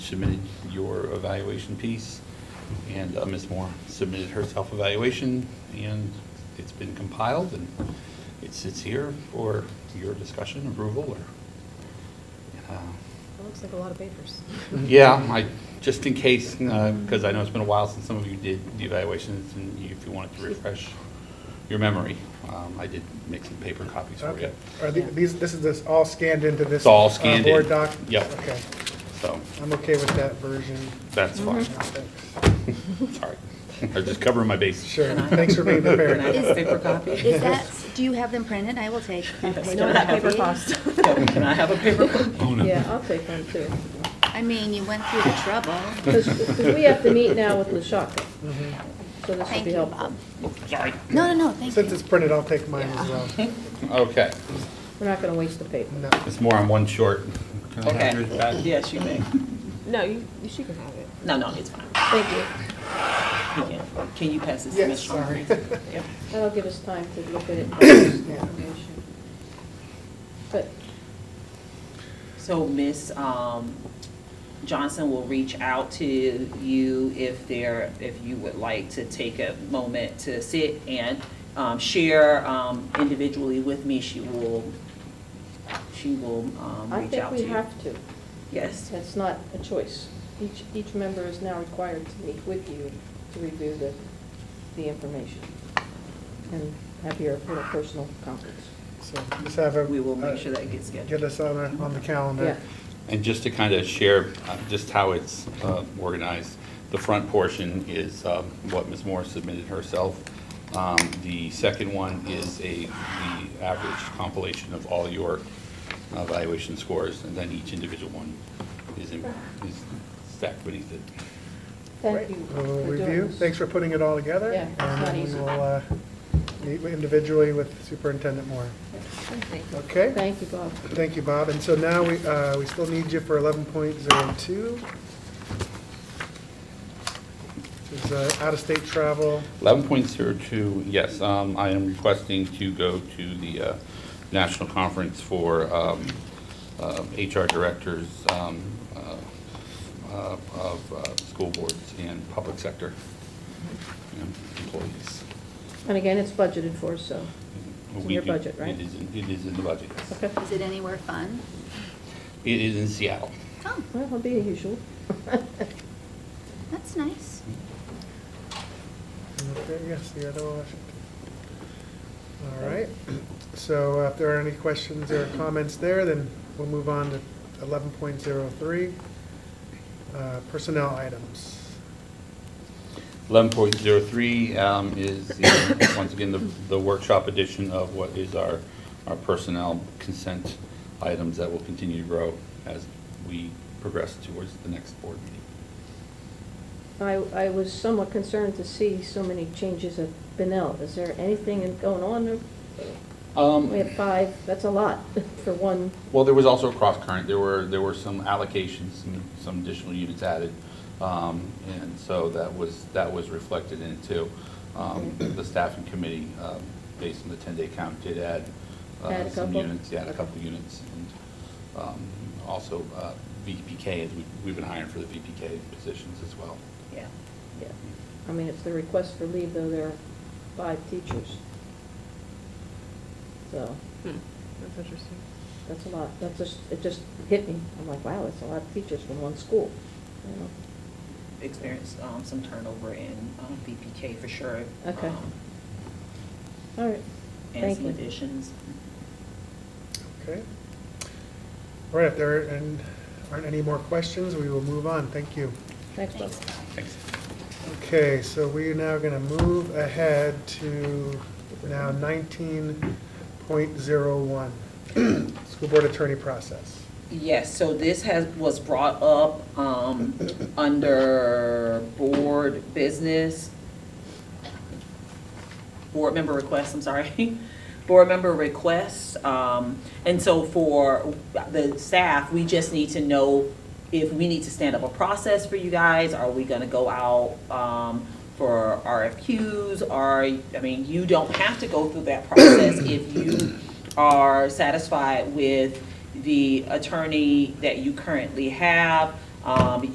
submitted your evaluation piece, and uh, Ms. Moore submitted her self-evaluation, and it's been compiled, and it sits here for your discussion, approval, or, uh, That looks like a lot of papers. yeah, I, just in case, because I know it's been a while since some of you did the evaluations, and you- if you wanted to refresh your memory, um, I did make some paper copies for you. Okay. Are the- these, this is this all scanned into this? It's all uh, scanned in. Board doc? Yep. Okay. So, I'm okay with that version. Mm-hmm. that's fine. Thanks. Sorry. I'm just covering my bases. Mm-hmm. Sure. Can I- Thanks for being prepared. Can I have a paper copy? Is that, do you have them printed? I will take. Yes. Know what that paper cost? Yeah, Can I have a paper copy? Oh, no. Yeah, I'll take one too. I mean, you went through the trouble. Because we have to meet now with Lashaka, so this will Thank be you, helpful. Bob. No, no, no, thank Since you. it's printed, I'll take mine as well. Okay. We're not going to waste the paper. No. It's more on one short. Can I have Okay. yours back? Yes, you may. No, you, she can have it. No, no, it's fine. Thank you. You can. Can you pass this to Yes, Ms. Shaw? sorry. Yep. That'll give us time to look at it. and get more information. But So Ms. um, Johnson will reach out to you if there, if you would like to take a moment to sit and um, share um, individually with me. She will, she will um, I reach think out to we you. have to. Yes, That's not a choice. Each, each member is now required to meet with you to review the, the information and have your little personal conference. So just have a. we will make sure that gets scheduled. Uh, Get us on, a- on the calendar. Yeah. And just to kind of share uh, just how it's uh, organized, the front portion is um, what Ms. Moore submitted herself. Um, The second one is a, the average compilation of all your uh, evaluation scores, and then each individual one is in- is stacked beneath it. Thank you for We'll doing review. this. Thanks for putting it all together. Yeah, it's not easy. And then we'll, uh, meet individually with Superintendent Moore. Okay? Thank you, Bob. Thank you, Bob. And so now we, uh, we still need you for eleven point zero two. This is, uh, out-of-state travel. 11.02, yes, um, I am requesting to go to the uh, national conference for um, uh, HR directors um, uh, uh, of uh, school boards and public sector um, employees. And again, it's budgeted for, so. It's in We your do- budget, right? It is, in- it is in the budget. yes. Okay. Is it anywhere fun? It is in Seattle. Oh, Well, it'll be usual. that's nice. Okay, yes, the other Washington. All right, so uh, if there are any questions or comments there, then we'll move on to eleven point zero three, uh, personnel items. 11.03 um, is, the- once again, the the workshop edition of what is our, our personnel consent items that will continue to grow as we progress towards the next board meeting. I, I was somewhat concerned to see so many changes at Benel. Is there anything in- going on? there? We have Um, five, that's a lot for one. Well, there was also a cross current. There were, there were some allocations, some- some additional units added. um, And so that was, that was reflected in it too. Um, The staffing committee, um, based on the 10-day count, did add uh, Add a some couple? units. Yeah, a couple of units. And um, also uh, VPK, as we- we've been hiring for the VPK positions as well. Yeah. Yeah. I mean, it's the request for leave, though, there are five teachers. So, Hmm, That's interesting. that's a lot. That's just, it just hit me. I'm like, wow, that's a lot of teachers from one school. you know? Experienced um, some turnover in um, BPK for sure. Okay. um, All right, And thank some you. additions. Okay. All right, if there are- and aren't any more questions, we will move on. Thank you. Thanks, Bob. Thanks. Thanks. Okay, so we are now going to move ahead to now nineteen point zero one, school board attorney process. Yes, so this has, was brought up um, under board business. Board member requests, I'm sorry. Board member requests. um, And so for the staff, we just need to know if we need to stand up a process for you guys. Are we going to go out um, for RFQs? Are, I mean, you don't have to go through that process if you are satisfied with the attorney that you currently have. Um,